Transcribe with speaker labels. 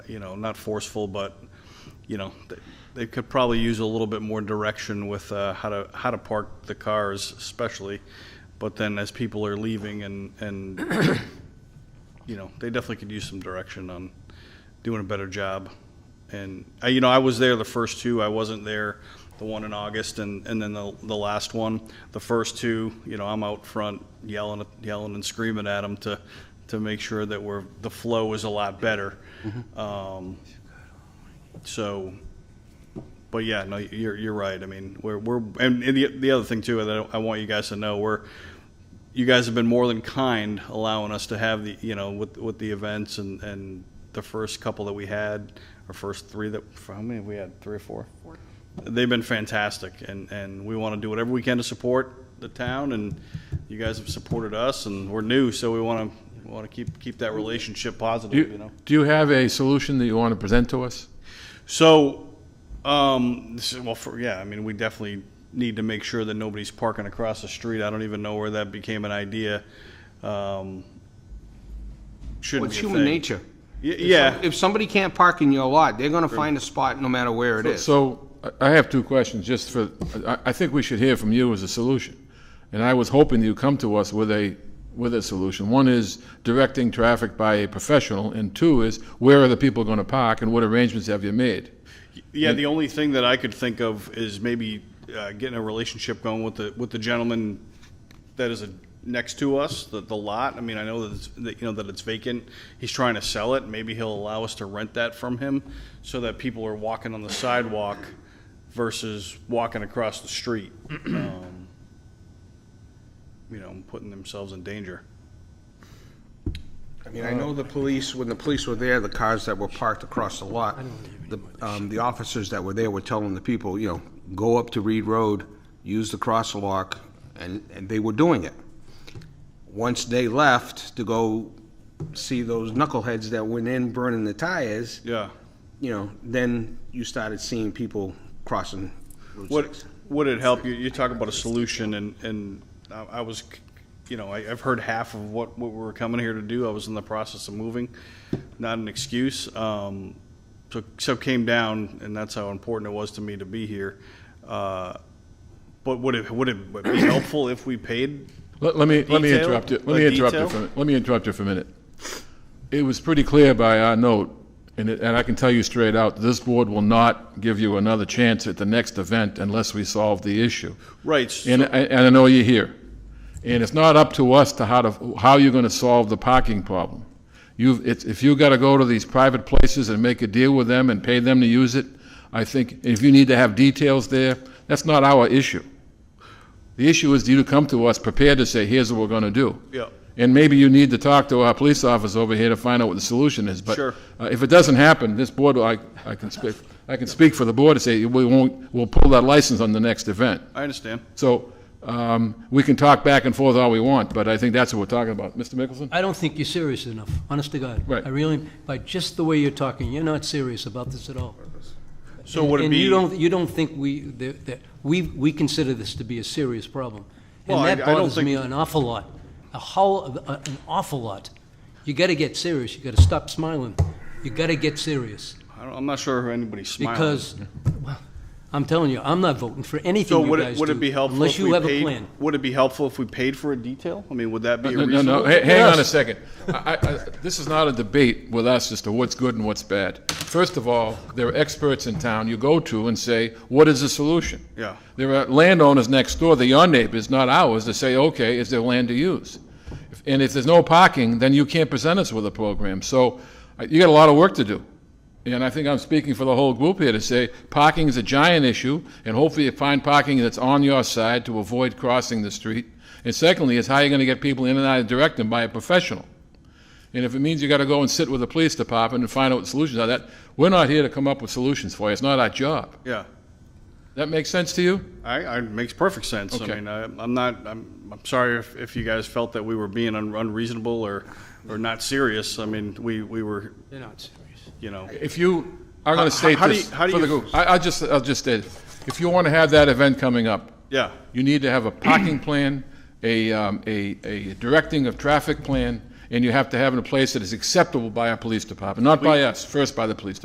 Speaker 1: you know, not forceful, but, you know, they, they could probably use a little bit more direction with, uh, how to, how to park the cars especially. But then as people are leaving and, and, you know, they definitely could use some direction on doing a better job. And, I, you know, I was there the first two, I wasn't there, the one in August and, and then the, the last one. The first two, you know, I'm out front yelling, yelling and screaming at them to, to make sure that we're, the flow is a lot better. Um, so, but yeah, no, you're, you're right. I mean, we're, we're, and the, the other thing too, that I want you guys to know, we're, you guys have been more than kind allowing us to have the, you know, with, with the events and, and the first couple that we had, our first three that, how many have we had? Three or four? Four. They've been fantastic and, and we want to do whatever we can to support the town and you guys have supported us and we're new, so we want to, want to keep, keep that relationship positive, you know?
Speaker 2: Do do you have a solution that you want to present to us?
Speaker 1: So, um, this is- well, for, yeah, I mean, we definitely need to make sure that nobody's parking across the street. I don't even know where that became an idea. Um,
Speaker 3: Well,
Speaker 1: shouldn't
Speaker 3: It's
Speaker 1: be a
Speaker 3: human
Speaker 1: thing.
Speaker 3: nature.
Speaker 1: Y- yeah,
Speaker 3: If somebody can't park in your lot, they're gonna find a spot no matter where it is.
Speaker 2: So I- I have two questions, just for, I, I think we should hear from you as a solution. And I was hoping you'd come to us with a, with a solution. One is directing traffic by a professional, and two is where are the people going to park and what arrangements have you made?
Speaker 1: yeah. The only thing that I could think of is maybe uh, getting a relationship going with the with the gentleman that is a, next to us, the, the lot. I mean, I know that, it's, that you know that it's vacant. He's trying to sell it. Maybe he'll allow us to rent that from him, so that people are walking on the sidewalk versus walking across the street. um, you know, putting themselves in danger.
Speaker 3: I mean, I know the police, when the police were there, the cars that were parked across the lot, the, um, the officers that were there were telling the people, you know, go up to Reed Road, use the crosswalk, and, and they were doing it. Once they left to go see those knuckleheads that went in burning the tires,
Speaker 1: Yeah.
Speaker 3: you know, then you started seeing people crossing Route
Speaker 1: What,
Speaker 3: six.
Speaker 1: would it help you, you talk about a solution and, and I I was, you know, I, I've heard half of what, what we were coming here to do. I was in the process of moving, not an excuse. Um, so, so came down and that's how important it was to me to be here. Uh, but would it, would it be helpful if we paid?
Speaker 2: Let, let me, let me
Speaker 1: Detail?
Speaker 2: interrupt you,
Speaker 1: A
Speaker 2: let me interrupt you
Speaker 1: detail?
Speaker 2: for, a mi- let me interrupt you for a minute. It was pretty clear by our note, and, it- and I can tell you straight out, this board will not give you another chance at the next event unless we solve the issue.
Speaker 1: Right, so-
Speaker 2: And, I- and I know you're here. And it's not up to us to how to, how you're gonna solve the parking problem. You've, it's, if you gotta go to these private places and make a deal with them and pay them to use it, I think, if you need to have details there, that's not our issue. The issue is you to come to us prepared to say, here's what we're gonna do.
Speaker 1: Yeah.
Speaker 2: And maybe you need to talk to our police officer over here to find out what the solution is, but
Speaker 1: Sure.
Speaker 2: uh, if it doesn't happen, this board, I, I can speak, I can speak for the board to say, we won't, we'll pull that license on the next event.
Speaker 1: I understand.
Speaker 2: So um, we can talk back and forth all we want, but I think that's what we're talking about. Mr. Mickelson?
Speaker 4: I don't think you're serious enough, honest to God.
Speaker 2: Right.
Speaker 4: I really, by just the way you're talking, you're not serious about this at all.
Speaker 1: So would it
Speaker 4: And you
Speaker 1: be,
Speaker 4: don't, you don't think we, that, that- we, we consider this to be a serious problem.
Speaker 1: Well,
Speaker 4: And
Speaker 1: I-
Speaker 4: that
Speaker 1: I don't
Speaker 4: bothers
Speaker 1: think-
Speaker 4: me an awful lot, a whole, a- an awful lot. You gotta get serious, you gotta stop smiling, you gotta get serious,
Speaker 1: I don't- I'm not sure if anybody's smiling.
Speaker 4: because, well, I'm telling you, I'm not voting for
Speaker 1: So
Speaker 4: anything you
Speaker 1: would
Speaker 4: guys
Speaker 1: it,
Speaker 4: do.
Speaker 1: would it be helpful
Speaker 4: Unless
Speaker 1: if we
Speaker 4: you have a
Speaker 1: paid,
Speaker 4: plan. Uh,
Speaker 1: would it be helpful if we paid for a detail? I mean, would that be
Speaker 2: No, no,
Speaker 1: reasonable?
Speaker 2: no, ha- hang on a second. I- I- I- This is not a debate with us as to what's good and what's bad. First of all, there are experts in town you go to and say, what is the solution?
Speaker 1: Yeah.
Speaker 2: There are landowners next door, they're your neighbors, not ours, to say, okay, is there land to use? If- And if there's no parking, then you can't present us with a program. So uh, you got a lot of work to do. And I think I'm speaking for the whole group here to say, parking is a giant issue, and hopefully you find parking that's on your side to avoid crossing the street. And secondly, is how you're gonna get people in and out of direct them by a professional. And if it means you gotta go and sit with the police department and find out what solutions are, that, we're not here to come up with solutions for you, it's not our job.
Speaker 1: Yeah.
Speaker 2: That make sense to you?
Speaker 1: I, I makes perfect sense. I
Speaker 2: Okay.
Speaker 1: mean, I, I'm not, I'm, I'm sorry if, if you guys felt that we were being un- unreasonable or, or not serious. I mean, we, we were,
Speaker 4: They're not serious.
Speaker 1: you know,
Speaker 2: If you are going
Speaker 1: How-
Speaker 2: to state
Speaker 1: how do
Speaker 2: this
Speaker 1: you- how
Speaker 2: for
Speaker 1: do
Speaker 2: the
Speaker 1: you-
Speaker 2: group, I- I'll just, I'll just state, it. if you want to have that event coming up,
Speaker 1: yeah.
Speaker 2: you need to have a parking plan, a, um, a, a directing of traffic plan, and you have to have it in a place that is acceptable by our police department, not by us, first by the police department.